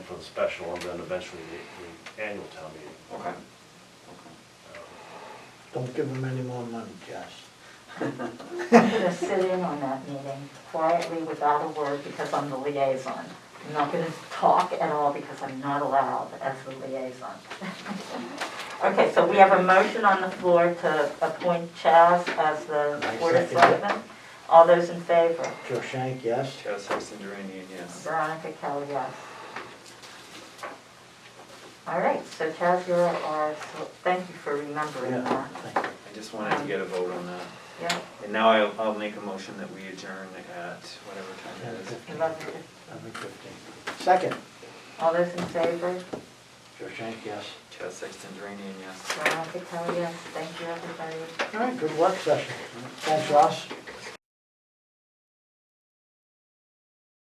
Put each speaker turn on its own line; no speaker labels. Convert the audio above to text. for the special and then eventually the, the annual town meeting.
Okay. Okay.
Don't give them any more money, Josh.
I'm gonna sit in on that meeting quietly without a word because I'm the liaison. I'm not gonna talk at all because I'm not allowed as the liaison. Okay, so we have a motion on the floor to appoint Chaz as the
I
Board of
second it.
Selectmen. All those in favor?
Joe Shank, yes?
Chaz Hexon Duranian, yes.
Veronica Kelly, yes. All right, so Chaz, you're our, so- thank you for remembering
Yeah,
that.
thank you.
I just wanted to get a vote on that.
Yeah,
And now I'll, I'll make a motion that we adjourn at whatever time it is.
I love it.
Number fifteen. Second,
All those in favor?
Joe Shank, yes.
Chaz Sexton Duranian, yes.
Veronica Kelly, yes. Thank you, everybody.
All right, good work session. Thanks, Ross.